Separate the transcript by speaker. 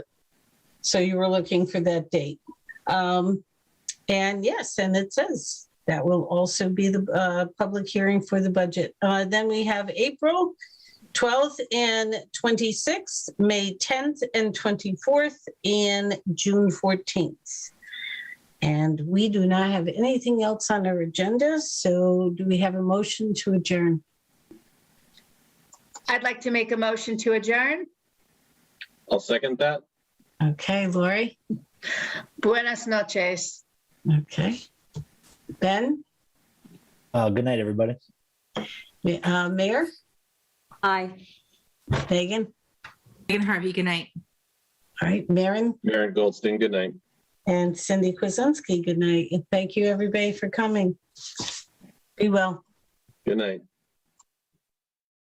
Speaker 1: So you were looking for that date. Um, and yes, and it says that will also be the uh, public hearing for the budget. Uh, then we have April 12th and 26th, May 10th and 24th, and June 14th. And we do not have anything else on our agenda, so do we have a motion to adjourn?
Speaker 2: I'd like to make a motion to adjourn.
Speaker 3: I'll second that.
Speaker 1: Okay, Lori?
Speaker 2: Buenas noches.
Speaker 1: Okay. Ben,
Speaker 4: Uh, good night, everybody.
Speaker 1: Ma- uh, Mayor,
Speaker 5: Aye.
Speaker 1: Megan,
Speaker 6: Megan Harvey, good night.
Speaker 1: all right, Maren,
Speaker 3: Maren Goldstein, good night.
Speaker 1: and Cindy Kuzensky, good night. And thank you, everybody, for coming. Be well.
Speaker 3: Good night.